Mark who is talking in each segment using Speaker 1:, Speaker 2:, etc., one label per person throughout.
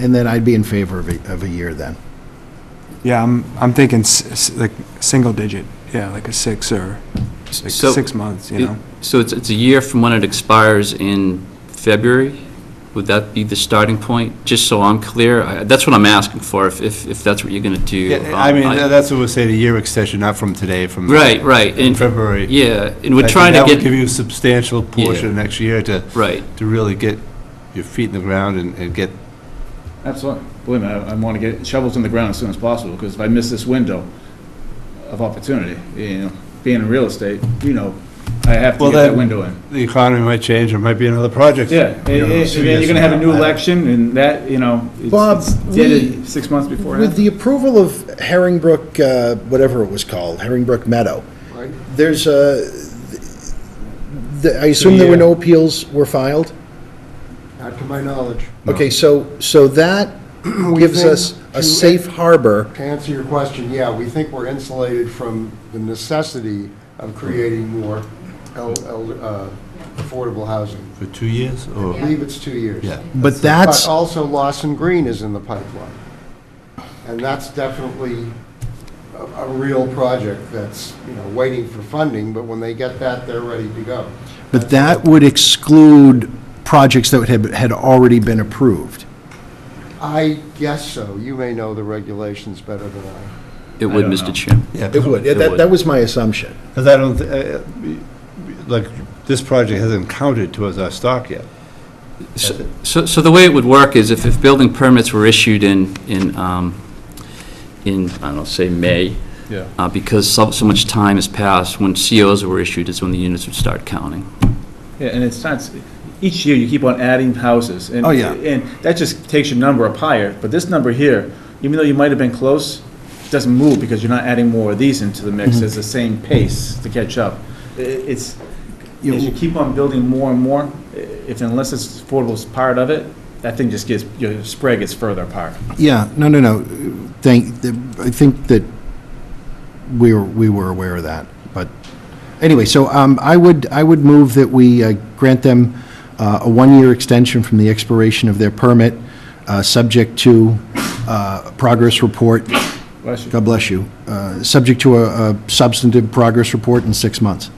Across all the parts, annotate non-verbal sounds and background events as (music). Speaker 1: And then I'd be in favor of a, of a year then.
Speaker 2: Yeah, I'm, I'm thinking s- s- like, single digit, yeah, like a six or, like,
Speaker 3: So-
Speaker 2: six months, you know?
Speaker 3: So it's, it's a year from when it expires in February? Would that be the starting point? Just so I'm clear, I- that's what I'm asking for, if, if if that's what you're going to do.
Speaker 4: Yeah, I
Speaker 3: Um,
Speaker 4: mean, tha- that's what we say, the year extension, not from today, from.
Speaker 3: Right, right.
Speaker 4: In
Speaker 3: and-
Speaker 4: February.
Speaker 3: Yeah, and
Speaker 4: I
Speaker 3: we're
Speaker 4: think
Speaker 3: trying to
Speaker 4: That would give
Speaker 3: get,
Speaker 4: you a substantial portion next year to,
Speaker 3: right.
Speaker 4: to really get your feet in the ground and, and get,
Speaker 5: Absolutely. Believe me, I, I want to get shovels in the ground as soon as possible, because if I miss this window of opportunity, you know, being in real estate, you know, I have to
Speaker 4: Well,
Speaker 5: get that
Speaker 4: then-
Speaker 5: window in.
Speaker 4: the economy might change, there might be another project.
Speaker 5: Yeah, and,
Speaker 4: you know,
Speaker 5: and- and
Speaker 4: two
Speaker 5: then
Speaker 4: years
Speaker 5: you're gonna
Speaker 4: from
Speaker 5: have a
Speaker 4: now.
Speaker 5: new
Speaker 4: I-
Speaker 5: election, and that, you know,
Speaker 1: Bob,
Speaker 5: it's, it's dated
Speaker 1: we-
Speaker 5: six months before.
Speaker 1: With the approval of Herringbrook, uh, whatever it was called, Herringbrook Meadow, there's a, the- I assume there were no appeals were filed?
Speaker 6: Not to my
Speaker 1: (clears throat)
Speaker 6: knowledge.
Speaker 1: Okay, so, so that
Speaker 6: We
Speaker 1: gives
Speaker 6: think
Speaker 1: us a
Speaker 6: to-
Speaker 1: safe harbor.
Speaker 6: To answer your question, yeah, we think we're insulated from the necessity of creating more el- el- uh, affordable housing.
Speaker 4: For two years,
Speaker 6: I
Speaker 4: or,
Speaker 6: believe it's two years.
Speaker 4: yeah.
Speaker 1: But
Speaker 6: But
Speaker 1: that's,
Speaker 6: also Lawson Green is in the pipeline. And that's definitely a a real project that's, you know, waiting for funding, but when they get that, they're ready to go.
Speaker 1: but that would exclude projects that had, had already been approved.
Speaker 6: I guess so. You may know the regulations better than I.
Speaker 3: It would,
Speaker 5: don't know.
Speaker 3: Mr. Chairman.
Speaker 1: It would,
Speaker 3: It
Speaker 1: that,
Speaker 3: would.
Speaker 1: that was my assumption.
Speaker 4: Because I don't, thi- uh, uh, like, this project hasn't counted towards our stock yet.
Speaker 3: So, so- so the way it would work is if, if building permits were issued in, in, um, in, I don't know, say, May,
Speaker 4: Yeah.
Speaker 3: uh, because so, so much time has passed, when COs were issued is when the units would start counting.
Speaker 5: Yeah, and it starts, each year you keep on adding houses. and-
Speaker 4: Oh, yeah.
Speaker 5: And that just takes your number up higher, but this number here, even though you might have been close, doesn't move because you're not adding more of these into the mix. It's the same pace to catch up. I- It's, as you keep on building more and more, i- if unless it's affordable as part of it, that thing just gets, your spread gets further apart.
Speaker 1: Yeah, no, no, no. Thank, I think that we were, we were aware of that, but, anyway, so um, I would, I would move that we uh, grant them uh, a one-year extension from the expiration of their permit, uh, subject to uh, progress report,
Speaker 5: Bless you.
Speaker 1: God bless you, uh, subject to a a substantive progress report in six months.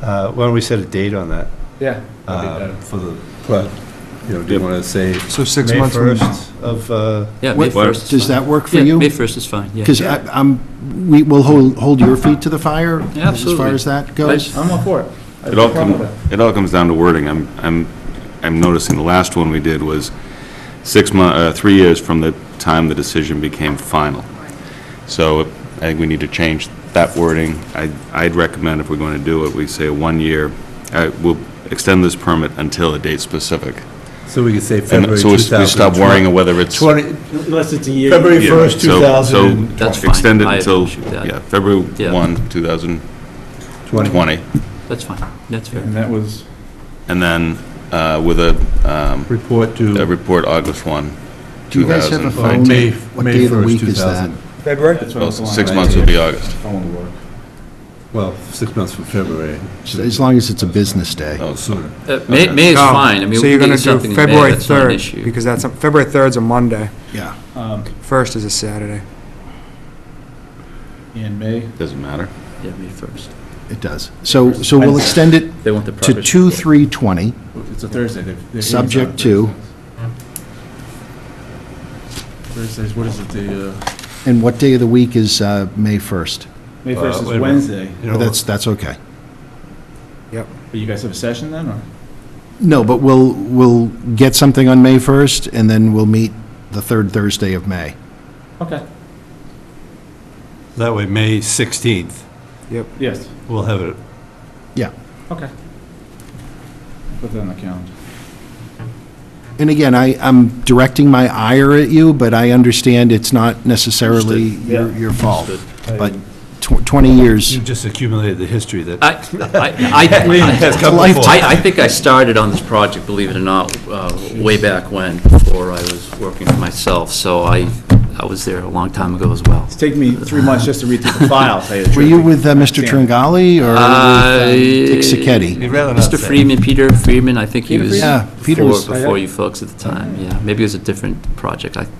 Speaker 4: Uh, Why don't we set a date on that?
Speaker 5: Yeah. that'd
Speaker 7: Um,
Speaker 5: be
Speaker 4: uh,
Speaker 5: better.
Speaker 4: For the, pro- you know, do you want to say?
Speaker 2: So six
Speaker 4: May
Speaker 2: months from
Speaker 4: 1st of, uh,
Speaker 3: Yeah, May
Speaker 1: What-
Speaker 3: 1st. is
Speaker 1: Does
Speaker 3: fine.
Speaker 1: that work for
Speaker 3: Yeah,
Speaker 1: you?
Speaker 3: May 1st is fine, yeah.
Speaker 1: Because I'm, we will hold, hold your feet to the fire
Speaker 3: Yeah,
Speaker 1: as far
Speaker 3: absolutely.
Speaker 1: as that goes.
Speaker 5: I'm all for it. I have
Speaker 7: It
Speaker 5: no
Speaker 7: all
Speaker 5: problem
Speaker 7: comes,
Speaker 5: with that.
Speaker 7: it all comes down to wording. I'm, I'm, I'm noticing the last one we did was six mon, uh, three years from the time the decision became final. So I think we need to change that wording. I, I'd recommend if we're going to do it, we say one year, uh, we'll extend this permit until a date specific.
Speaker 4: so we could say
Speaker 7: And
Speaker 4: February
Speaker 7: so we s-
Speaker 4: 2020?
Speaker 7: we stop worrying whether it's.
Speaker 4: 20,
Speaker 8: Unless it's a year.
Speaker 4: February
Speaker 7: Yeah,
Speaker 4: 1st,
Speaker 7: so-
Speaker 4: 2020.
Speaker 7: so
Speaker 3: That's fine.
Speaker 7: Extend it
Speaker 3: I
Speaker 7: until,
Speaker 3: appreciate that.
Speaker 7: yeah, February
Speaker 3: Yeah.
Speaker 7: 1, 2020.
Speaker 3: That's fine, that's fair.
Speaker 5: And that was,
Speaker 7: And then uh, with a, um,
Speaker 4: Report
Speaker 7: a
Speaker 4: to
Speaker 7: report August 1,
Speaker 1: Do you guys have a phone?
Speaker 7: 2019.
Speaker 4: May,
Speaker 1: What
Speaker 4: May
Speaker 1: day of the
Speaker 4: 1st,
Speaker 1: week is that?
Speaker 4: 2000.
Speaker 6: February?
Speaker 5: that's what I
Speaker 7: Well,
Speaker 5: was going
Speaker 7: six
Speaker 5: with.
Speaker 7: months would be August.
Speaker 5: Phone work.
Speaker 4: Well, six months from February.
Speaker 1: As long as it's a business day.
Speaker 7: Oh,
Speaker 4: Sooner.
Speaker 3: Uh, May, May is
Speaker 2: Oh,
Speaker 3: fine, I mean,
Speaker 2: so
Speaker 3: we
Speaker 2: you're
Speaker 3: can
Speaker 2: gonna
Speaker 3: get
Speaker 2: do
Speaker 3: something in May,
Speaker 2: February
Speaker 3: that's not an
Speaker 2: 3rd,
Speaker 3: issue.
Speaker 2: Because that's, a- February 3rd's a Monday,
Speaker 1: Yeah.
Speaker 5: Um,
Speaker 2: 1st is a Saturday.
Speaker 5: In May,
Speaker 7: Doesn't matter.
Speaker 3: Yeah, May 1st.
Speaker 1: It does. So, so we'll extend it
Speaker 3: They want the progress.
Speaker 1: to 2,
Speaker 3: report.
Speaker 1: 3, 20,
Speaker 5: It's a Thursday. They're- they're-
Speaker 1: Subject to-
Speaker 5: Thursdays, what is it, the, uh,
Speaker 1: and what day of the week is uh, May 1st?
Speaker 5: May 1st
Speaker 4: wait a
Speaker 5: is
Speaker 4: minute.
Speaker 5: Wednesday.
Speaker 4: You know,
Speaker 1: That's, that's okay.
Speaker 5: But you guys have a session then, or?
Speaker 1: No, but we'll, we'll get something on May 1st, and then we'll meet the third Thursday of May.
Speaker 5: Okay.
Speaker 4: That way, May 16th,
Speaker 5: Yes,
Speaker 4: we'll have it.
Speaker 1: Yeah.
Speaker 5: okay. Put that on the calendar.
Speaker 1: And again, I, I'm directing my ire at you, but I understand it's not necessarily
Speaker 3: Understood.
Speaker 1: your,
Speaker 5: Yeah.
Speaker 1: your fault.
Speaker 5: I-
Speaker 1: But tw- 20 years,
Speaker 4: You just accumulated the history that.
Speaker 3: I,
Speaker 2: (laughs)
Speaker 3: I, I,
Speaker 4: Has come
Speaker 1: Life-
Speaker 4: before.
Speaker 3: I, I think I started on this project, believe it or not, uh, way back when, before I was working for myself, so I, I was there a long time ago as well.
Speaker 5: It's taken me three months just to read through the file, to tell you the
Speaker 1: Were
Speaker 5: truth.
Speaker 1: you with uh, Mr. Tringali or um,
Speaker 3: Uh,
Speaker 1: Dick Sacchetti?
Speaker 3: Mr. Freeman, Peter Freeman, I think he was
Speaker 1: Freeman? Yeah, Peter
Speaker 3: before
Speaker 1: was-
Speaker 3: before you folks at the time, yeah. Maybe it was a different project. I